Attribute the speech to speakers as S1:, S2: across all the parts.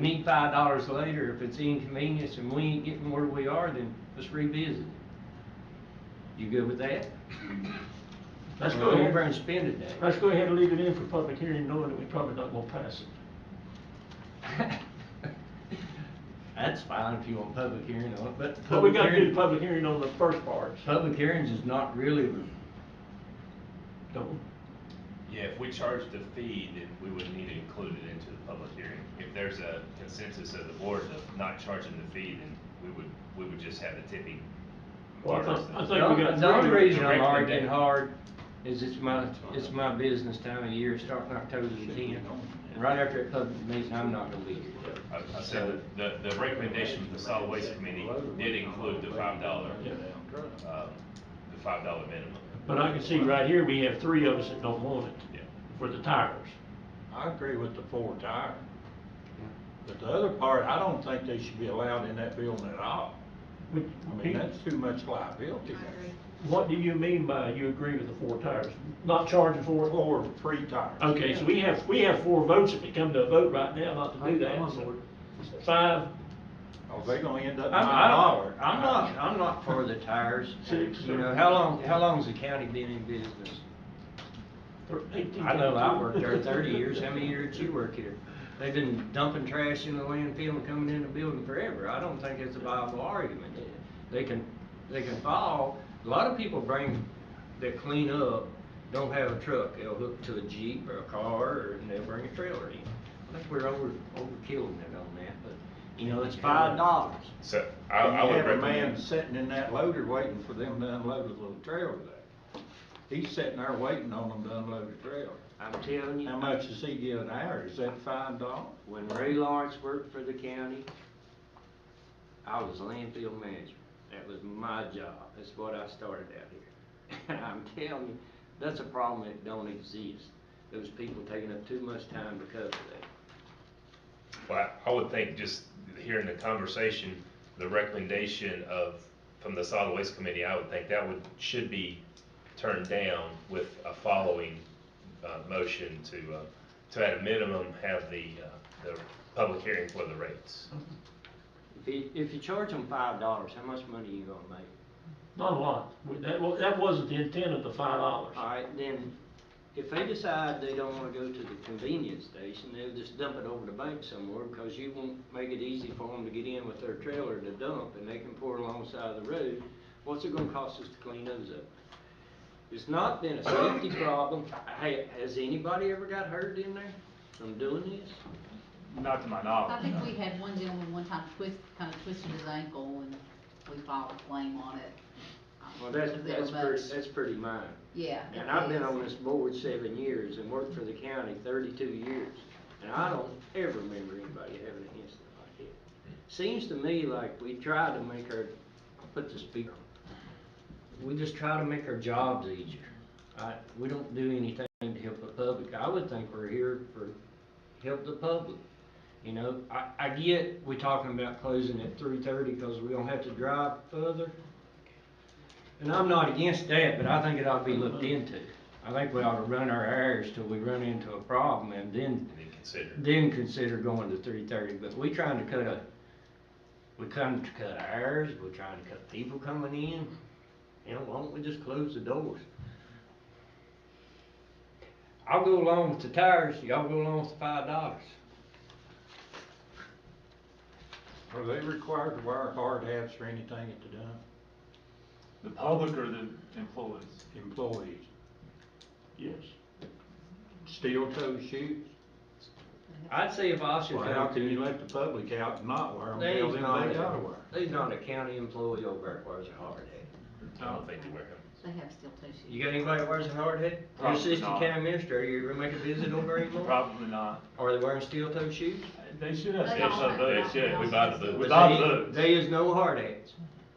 S1: meet five dollars later, if it's inconvenience and we ain't getting where we are, then let's revisit it. You good with that?
S2: Let's
S1: Or
S2: go
S1: Go over and
S2: ahead,
S1: spend it then.
S2: let's go ahead and leave it in for public hearing, knowing that we probably not gonna pass it.
S1: That's fine if you want public hearing on it, but.
S2: But we
S1: public
S2: gotta do
S1: hearing-
S2: the public hearing on the first part,
S1: Public hearings is not really,
S2: don't,
S3: Yeah, if we charged a fee, then we would need to include it into the public hearing. If there's a consensus of the board of not charging the fee, then we would, we would just have the tipping.
S2: Well, I
S3: part
S2: thought-
S3: of
S2: I
S3: the-
S2: thought-
S1: the
S2: think we
S1: only-
S2: got
S1: the only
S2: three
S1: reason I'm
S3: directly
S1: arguing
S3: done.
S1: hard is it's my, it's my business time of year, starting October the tenth. And right after that public meeting, I'm not gonna be here.
S3: I- I said that the, the recommendation from the solid waste committee did include the five dollar, um, the five dollar minimum.
S2: but I can see right here, we have three of us that don't want
S3: Yeah.
S2: it for the tires.
S4: I agree with the four tire, but the other part, I don't think they should be allowed in that building at all.
S2: Would-
S4: I mean, that's too much liability.
S2: What do you mean by you agree with the four tires, not charging for it?
S4: Four free tires.
S2: Okay, so we have, we have four votes if it come to a vote right now not to do that, so five,
S4: Are Oh, they gonna end up
S1: I'm,
S4: nine
S1: I
S4: dollars?
S1: don't, I'm not, I'm not for the tires.
S2: Six,
S1: You know,
S2: seven.
S1: how long, how long's the county been in business?
S2: thir- eighteen.
S1: I know I worked there thirty years, how many years did you work here? They've been dumping trash in the landfill and coming in the building forever, I don't think it's a viable argument. They can, they can fall, a lot of people bring, that clean up, don't have a truck, they'll hook to a Jeep or a car, or and they'll bring a trailer in. I think we're over, overkilling it on that, but, you know, it's five dollars.
S3: So I,
S4: And
S3: I
S4: you
S3: would
S4: have a man
S3: recommend,
S4: sitting in that loader waiting for them to unload the little trailer there. He's sitting there waiting on them to unload the trailer.
S1: I'm telling you.
S4: How much does he get an hour? Is that five dollars?
S1: When Ray Lawrence worked for the county, I was landfill manager. That was my job. That's what I started out here. And I'm telling you, that's a problem that don't exist. Those people taking up too much time because of that.
S3: well, I I would think just hearing the conversation, the recommendation of, from the solid waste committee, I would think that would, should be turned down with a following, uh, motion to, uh, to at a minimum have the, uh, the public hearing for the rates.
S1: If you, if you charge them five dollars, how much money you gonna make?
S2: Not a lot, We- that, wa- that wasn't the intent of the five dollars.
S1: All right, then, if they decide they don't wanna go to the convenience station, they'll just dump it over the bank somewhere because you won't make it easy for them to get in with their trailer to dump and they can pour alongside of the road. What's it gonna cost us to clean those up? It's not been a safety problem. Hey, has anybody ever got hurt in there from doing this?
S5: Not to my
S6: I
S5: knowledge.
S6: think
S5: no.
S6: we had one gentleman one time twist, kind of twisted his ankle and we filed a claim on it.
S1: Well, that's,
S6: Because they were
S1: that's pretty,
S6: bugs.
S1: that's pretty mine.
S6: Yeah.
S1: And I've been
S6: it
S1: on
S6: is.
S1: this board seven years and worked for the county thirty-two years, and I don't ever remember anybody having an incident like that. Seems to me like we try to make our, put the speaker on. We just try to make our jobs easier. I, we don't do anything to help the public. I would think we're here for, help the public. You know, I, I get, we talking about closing at three thirty, cause we don't have to drive further. And I'm not against that, but I think it ought to be looked into. I think we ought to run our errors till we run into a problem and then,
S3: And then consider.
S1: then consider going to three thirty, but we trying to cut a, we come to cut hours, we're trying to cut people coming in. You know, why don't we just close the doors? I'll go along with the tires, y'all go along with the five dollars.
S4: Are they required to wear hard hats or anything at the dump?
S5: The public or the employees?
S4: Employees,
S2: Yes.
S4: steel toe shoes?
S1: I'd say if Austin
S4: Well, how
S1: County,
S4: can you let the public out and not wear them,
S1: They
S4: tell them
S1: not
S4: they
S1: a-
S4: gotta wear 'em?
S1: there's not a county employee over there that wears a hard hat.
S3: I don't think they wear them.
S6: They have steel toe shoes.
S1: You got anybody that wears a hard hat? Your
S5: Probably
S1: assistant
S5: not.
S1: county administrator, you ever make a visit over anymore?
S5: Probably not.
S1: Are they wearing steel toe shoes?
S5: They should have.
S6: They all
S5: some
S6: have
S5: votes,
S6: that.
S3: yeah, we buy the boots.
S5: Without
S1: They-
S5: boots.
S1: They is no hard hats.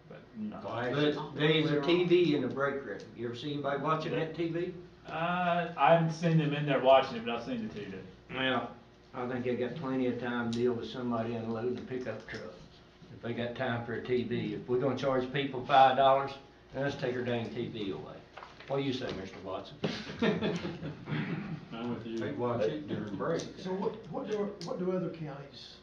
S5: but no.
S4: Why is it-
S1: But there is a TV in the break room. You ever see anybody watching that TV?
S5: Uh, I haven't seen them in there watching it, but I've seen the TV.
S1: Well, I think they got plenty of time to deal with somebody unloading a pickup truck. If they got time for a TV, if we're gonna charge people five dollars, then let's take her dang TV away. What do you say, Mr. Watson?
S2: I'm with
S4: They watch it during breaks.
S7: So what, what do, what do other counties